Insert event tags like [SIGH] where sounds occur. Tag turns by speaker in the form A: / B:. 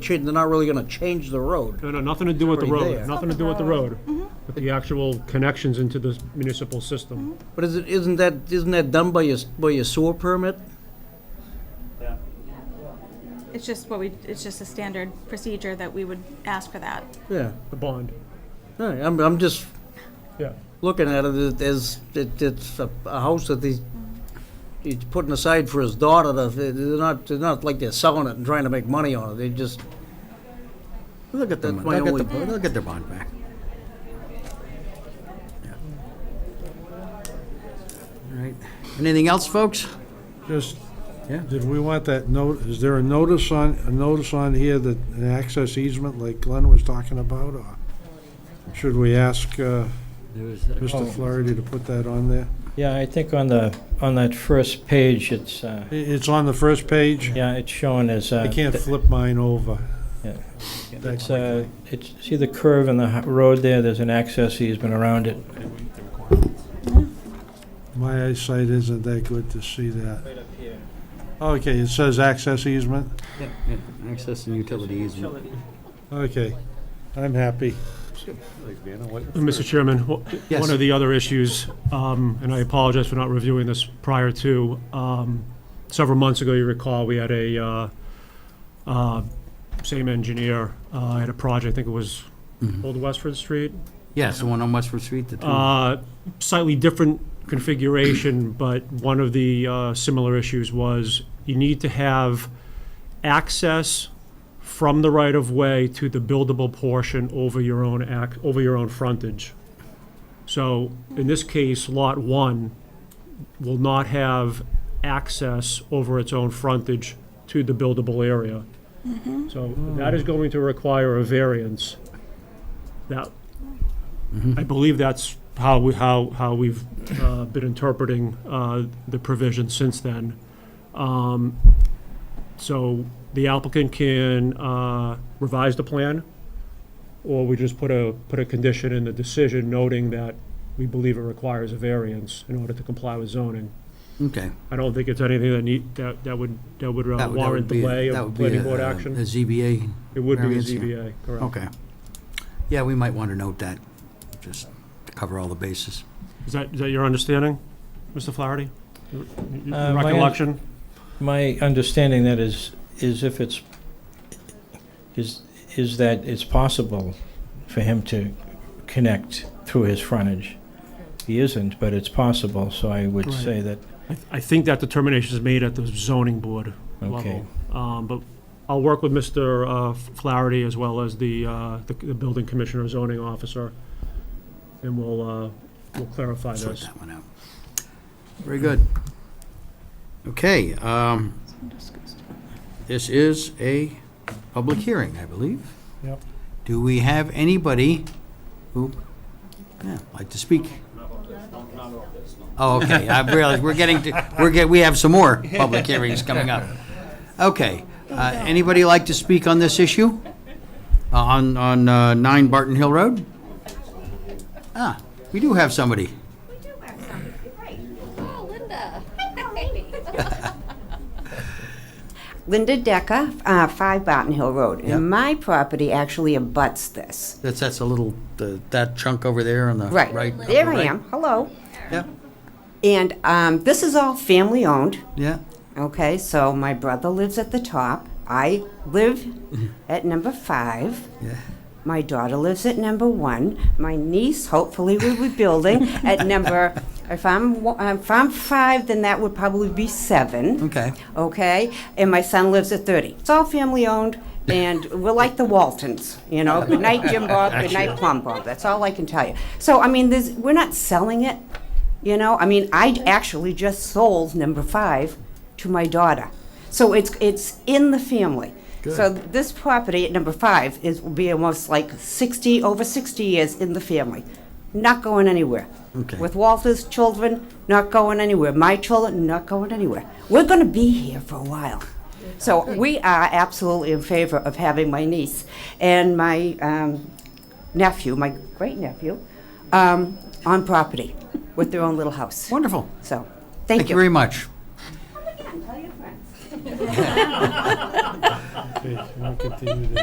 A: change, they're not really gonna change the road.
B: No, no, nothing to do with the
A: Already
B: road,
A: there.
B: nothing to do with the road, with the actual connections into the municipal system.
A: But is it, isn't that, isn't that done by your, by your sewer permit?
C: It's just what we, it's just a standard procedure that we would ask for that.
A: Yeah,
B: The bond,
A: No, I'm, I'm just
B: yeah.
A: looking at it as, it, it's a, a house that he's, he's putting aside for his daughter, to- they're not, they're not like they're selling it and trying to make money on it, they just,
D: They'll get their,
A: That's
D: mon-
A: my
D: they'll get,
A: only-
D: the, they'll get their bond back. Yeah. All right. Anything else, folks?
E: Just,
D: Yeah.
E: did we want that note, is there a notice on, a notice on here that an access easement like Glenn was talking about, or should we ask uh, Mr. Flaherty to put that on there?
F: Yeah, I think on the, on that first page, it's, uh,
E: I- It's on the first page.
F: yeah, it's shown as. uh,
E: I can't
F: th-
E: flip mine over.
F: yeah.
E: That-
F: It's, uh, it's, see the curve in the h- road there, there's an access easement around it.
E: My eyesight isn't that good to see that. Okay, it says access easement.
D: Yeah, Access and utility easement.
E: Okay, I'm happy.
B: Mr. Uh, Chairman, wh-
D: Yes.
B: one of the other issues, um, and I apologize for not reviewing this prior to, um, several months ago, you recall, we had a, uh, uh, same engineer, uh, had a project, I think it was
A: Mm-hmm.
B: Old Westford Street,
D: Yes, the one on Westford Street, the two.
B: Uh, Slightly different configuration, but one of the uh, similar issues was you need to have access from the right-of-way to the buildable portion over your own ac, over your own frontage. So in this case, Lot 1 will not have access over its own frontage to the buildable area. So that is going to require a variance. That, I believe that's how we, how, how we've uh, been interpreting uh, the provision since then. Um, So the applicant can uh, revise the plan, or we just put a, put a condition in the decision noting that we believe it requires a variance in order to comply with zoning.
D: Okay.
B: I don't think it's anything that need, that, that would, that would
D: That
B: uh,
D: would- that would
B: warrant
D: be-
B: delay
D: that
B: of
D: would be
B: planning
D: a-
B: board
D: a- A
B: action.
D: ZBA,
B: It would be a
D: variance, yeah.
B: ZBA, correct.
D: okay. Yeah, we might want to note that, just to cover all the bases.
B: Is that, is that your understanding, Mr. Flaherty? Your- your
F: Uh, my un-
B: Recollection?
F: My understanding that is, is if it's, is, is that it's possible for him to connect through his frontage. He isn't, but it's possible, so I would
B: Right.
F: say that,
B: I- I think that determination is made at the zoning board
F: okay.
B: level. Um, But I'll work with Mr. uh, Flaherty as well as the, uh, the the building commissioner, zoning officer, and we'll, uh, we'll clarify
D: Sort
B: this.
D: that one out. Very good. Okay, um, this is a public hearing, I believe.
E: Yep.
D: Do we have anybody who, yeah, like to speak? Oh, okay, I realize, we're getting to, we're get, we have some more public hearings coming up. Okay, uh, anybody like to speak on this issue? Uh, On, on uh, 9 Barton Hill Road? Ah, we do have somebody.
G: Oh, Linda. [LAUGHS] Linda Decker, uh, 5 Barton Hill Road.
D: Yep.
G: And my property actually abuts this.
D: That's, that's a little, the- that chunk over there on the right.
G: Right. There I
D: right.
G: am. Hello.
D: Yeah,
G: And um, this is all family owned.
D: yeah,
G: Okay, so my brother lives at the top. I live at number 5.
D: yeah.
G: My daughter lives at number one. My niece, hopefully, will be building at number. If I'm wa- if I'm five, then that would probably be seven.
D: Okay.
G: Okay. And my son lives at thirty. It's all family owned, and we're like the Waltons, you know. Good night, Jim Bob. Good night, Plum Bob. That's all I can tell you. So I mean, there's, we're not selling it, you know. I mean, I actually just sold number five to my daughter, so it's it's in the family. So this property at number five is, will be almost like 60, over 60 years in the family, not going anywhere.
D: Okay.
G: With Walter's children, not going anywhere. My children, not going anywhere. We're going to be here for a while. So we are absolutely in favor of having my niece and my um, nephew, my great nephew, um, on property with their own little house.
D: Wonderful.
G: So,
D: Thank you very much.
E: Okay, we'll continue to